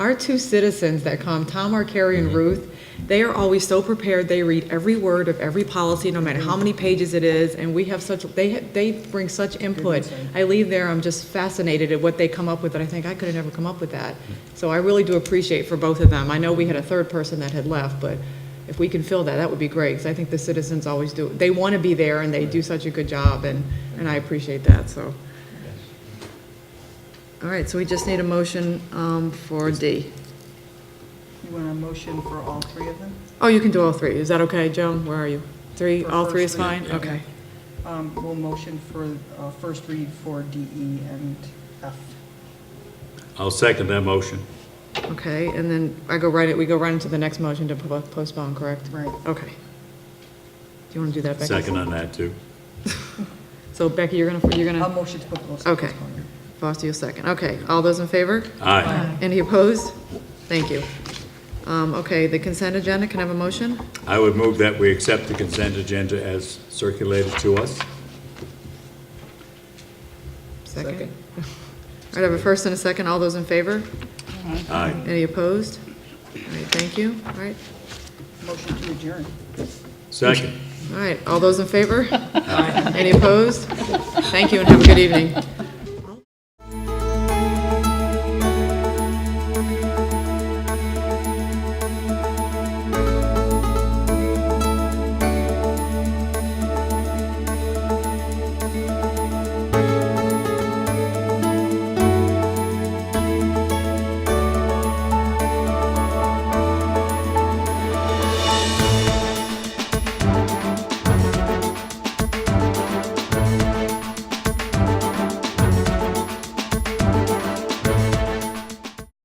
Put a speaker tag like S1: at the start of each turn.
S1: our two citizens that come, Tom Arcari and Ruth, they are always so prepared. They read every word of every policy, no matter how many pages it is, and we have such, they, ha- they bring such input. I leave there, I'm just fascinated at what they come up with, and I think, I could have never come up with that. So I really do appreciate for both of them. I know we had a third person that had left, but if we can fill that, that would be great, because I think the citizens always do, they want to be there, and they do such a good job, and, and I appreciate that, so. All right, so we just need a motion um, for D.
S2: You want a motion for all three of them?
S1: Oh, you can do all three. Is that okay, Joan? Where are you? Three,
S2: For
S1: all three is
S2: first
S1: fine?
S2: read, yeah.
S1: Okay.
S2: Um, We'll motion for uh, first read for DE and F.
S3: I'll second that motion.
S1: Okay, and then I go right, we go right into the next motion to po- postpone, correct?
S2: Right.
S1: Okay. Do you want to do that, Becky?
S3: Second on that, too.
S1: So Becky, you're gonna, you're
S2: I'll
S1: gonna,
S2: motion to put those.
S1: Okay. Foster, you'll second. Okay, all those in favor?
S3: Aye.
S1: Any opposed? Thank you. Um, Okay, the consent agenda, can I have a motion?
S3: I would move that we accept the consent agenda as circulated to us.
S1: Second. All right, I have a first and a second. All those in favor?
S3: Aye.
S1: Any opposed? All right, thank you. All right.
S2: Motion to adjourn.
S3: Second.
S1: All right, all those in favor? Any opposed? Thank you and have a good evening.